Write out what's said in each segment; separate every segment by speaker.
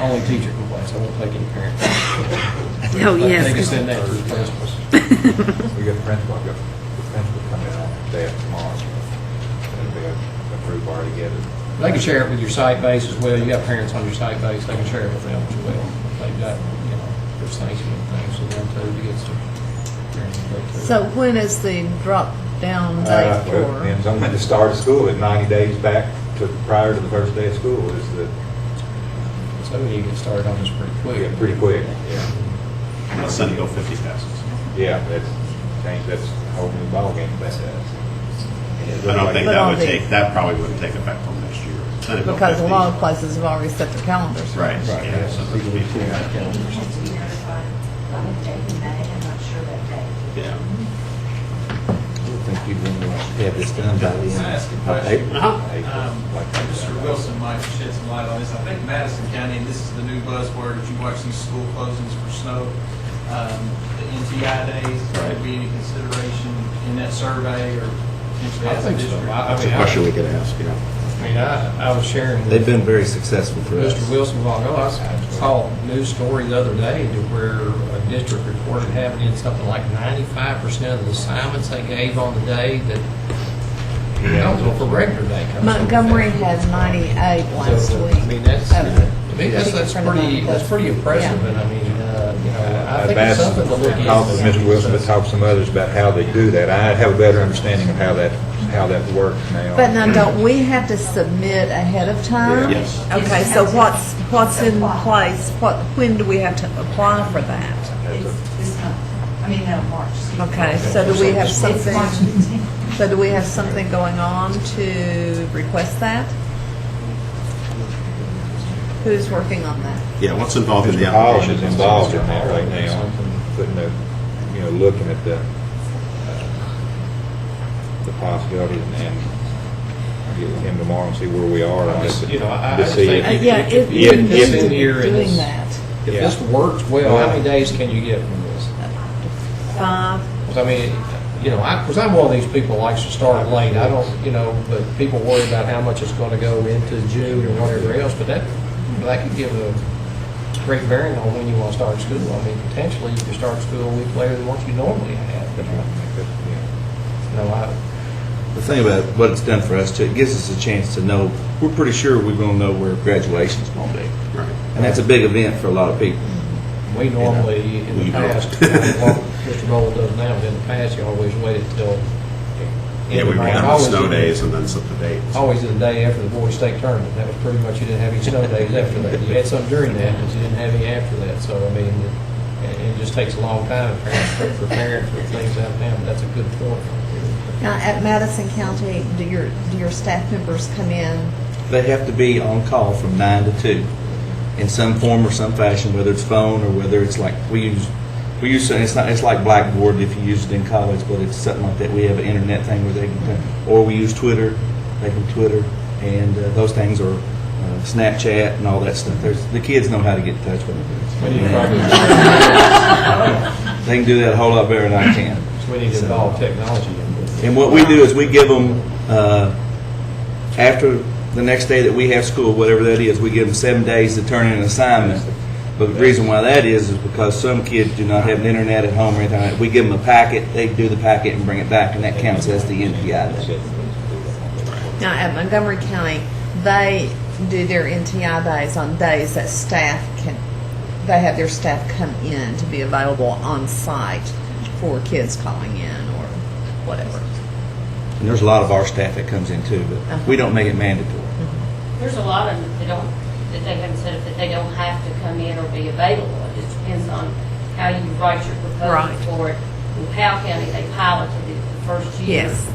Speaker 1: Only teacher complains, I won't take any parent.
Speaker 2: Oh,
Speaker 1: They can
Speaker 2: yes.
Speaker 1: send that to the principals.
Speaker 3: We got the principal, we got the principal coming in on day after tomorrow, so it'll be a- approved bar together.
Speaker 1: They can share it with your site base as well, you got parents on your site base, they can share it with them as well. They've got, you know, their sanction and things, so they're too, to get some. parents to go to.
Speaker 4: So when is the drop down
Speaker 3: Uh,
Speaker 4: date
Speaker 3: Well, it
Speaker 4: for?
Speaker 3: depends on when the start of school, is. 90 days back to, prior to the first day of school is the,
Speaker 1: So we need to get started on this pretty
Speaker 3: yeah,
Speaker 1: quick.
Speaker 3: pretty quick, yeah.
Speaker 5: My son go 50 passes.
Speaker 3: Yeah, that's, change, that's a whole new ballgame, that's it.
Speaker 5: I don't think
Speaker 4: But
Speaker 5: that
Speaker 4: on
Speaker 5: would
Speaker 4: the-
Speaker 5: take, that probably wouldn't take effect till next year. Senate Bill
Speaker 4: Because a
Speaker 5: 50.
Speaker 4: lot of places have already set their calendars.
Speaker 3: Right,
Speaker 5: Right, yeah, so
Speaker 3: yeah.
Speaker 5: that's before that.
Speaker 6: It has to be notified on the date in May, E I'm not sure that date.
Speaker 5: Yeah.
Speaker 3: think you'd want to have this done by the
Speaker 7: Can I ask a question? Um,
Speaker 3: uh,
Speaker 7: Mr. Wilson might shed some light on this. I think Madison County, and this is the new buzzword, if you watch these school closings for snow, um, the NTI days, would be any consideration in that survey or potentially
Speaker 1: I
Speaker 7: as a
Speaker 1: think so.
Speaker 7: district?
Speaker 1: I- I
Speaker 8: That's a
Speaker 1: mean, I-
Speaker 8: question we could ask, yeah.
Speaker 1: I mean, I, I was sharing with.
Speaker 8: They've been very successful for us.
Speaker 1: Mr. Wilson, long ago, I saw a news story the other day to where a district reported having in something like ninety-five percent of the assignments they gave on the day that were eligible for regular day. comes from the
Speaker 4: Montgomery
Speaker 1: family.
Speaker 4: had 98 last
Speaker 1: So,
Speaker 4: week.
Speaker 1: I mean, that's,
Speaker 4: of the-
Speaker 1: to me, that's, that's
Speaker 4: I think it's
Speaker 1: pretty, that's pretty impressive, and I mean, uh, you know, I
Speaker 3: I've
Speaker 1: think it's
Speaker 3: asked,
Speaker 1: something to look at.
Speaker 3: talked with Mr. Wilson, but talked to some others about how they do that. I have a better understanding of how that, how that works now.
Speaker 4: But now, don't we have to submit ahead of time?
Speaker 3: Yes.
Speaker 4: Okay, so what's, what's in place, what, when do we have to apply for that?
Speaker 6: It's this month, I mean, no, March. excuse me.
Speaker 4: Okay, so do we have
Speaker 6: It's March
Speaker 4: something,
Speaker 6: 15th.
Speaker 4: so do we have something going on to request that? Who's working on that?
Speaker 5: Yeah, what's involved in the
Speaker 3: Mr. Polish is
Speaker 5: application?
Speaker 3: involved in that right now, putting the, you know, looking at the, uh, the possibilities and- and I'll get with him tomorrow and see where we are on
Speaker 1: I
Speaker 3: this.
Speaker 1: just, you know, I- I
Speaker 3: to
Speaker 1: just
Speaker 3: see
Speaker 1: think-
Speaker 3: if-
Speaker 4: Uh, Yeah, it,
Speaker 1: Yeah,
Speaker 4: we need
Speaker 1: it's
Speaker 4: to
Speaker 1: in
Speaker 4: be
Speaker 1: here, it
Speaker 4: doing
Speaker 1: is.
Speaker 4: that.
Speaker 1: If this works well, how many days can you get from this?
Speaker 4: Five,
Speaker 1: Because I mean, you know, I, because I'm one of these people likes to start late, I don't, you know, but people worry about how much it's going to go into June or whatever else, but that, that could give a great bearing on when you want to start school. I mean, potentially, you could start school a week later than what you normally have, but, you know, I,
Speaker 8: The thing about what it's done for us, too, it gives us a chance to know, we're pretty sure we're going to know where graduation's going to be.
Speaker 5: Right.
Speaker 8: And that's a big event for a lot of people.
Speaker 1: we normally, in the
Speaker 8: You know.
Speaker 1: past, what Mr. Gold does now, but in the past, you always waited till.
Speaker 5: Yeah, we
Speaker 1: Always
Speaker 5: have the snow
Speaker 1: in-
Speaker 5: days and then set the date.
Speaker 1: Always the day after the boys' state tournament. That was pretty much, you didn't have any snow days after that. You had some during that, but you didn't have any after that. So, I mean, it, it just takes a long time for parents to prepare for things out now, but that's a good point.
Speaker 4: now, at Madison County, do your, do your staff members come in?
Speaker 8: They have to be on call from nine to two in some form or some fashion, whether it's phone or whether it's like, we use, we use, it's not, it's like Blackboard if you use it in college, but it's something like that. We have an internet thing where they can, or we use Twitter, they can Twitter, and uh, those things are uh, Snapchat and all that stuff. There's, the kids know how to get in touch with
Speaker 1: We need
Speaker 8: them.
Speaker 1: to probably,
Speaker 8: They can do that a whole lot better than I can.
Speaker 1: we need to involve technology in this.
Speaker 8: And what we do is we give them, uh, after the next day that we have school, whatever that is, we give them seven days to turn in an assignment. But the reason why that is, is because some kids do not have an internet at home or anything. like that. We give them a packet, they do the packet and bring it back, and that counts as the NPI day.
Speaker 4: Now, at Montgomery County, they do their NTI days on days that staff can, they have their staff come in to be available on site for kids calling in or whatever.
Speaker 8: And there's a lot of our staff that comes in too, but we don't make it mandatory.
Speaker 9: There's a lot of them that don't, that they haven't said that they don't have to come in or be available. It just depends on how you write your
Speaker 4: Right.
Speaker 9: proposal for it. In Powell County, they piloted it the first year.
Speaker 4: Yes.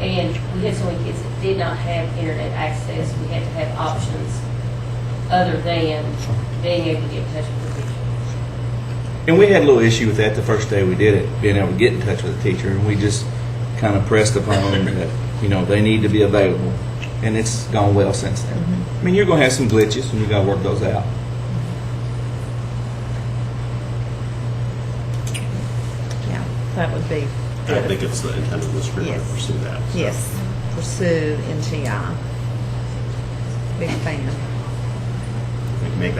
Speaker 9: And we had so many kids that did not have internet access. We had to have options other than being able to get in touch with the teacher.
Speaker 8: And we had a little issue with that the first day we did it, being able to get in touch with the teacher, and we just kind of pressed upon them that, you know, they need to be available. And it's gone well since then. I mean, you're going to have some glitches, and you got to work those out.
Speaker 4: Yeah, that would be,
Speaker 5: I think it's the intent of this group to
Speaker 4: Yes.
Speaker 5: pursue that. so.
Speaker 4: yes, pursue NTI. Big fan.
Speaker 5: I think Make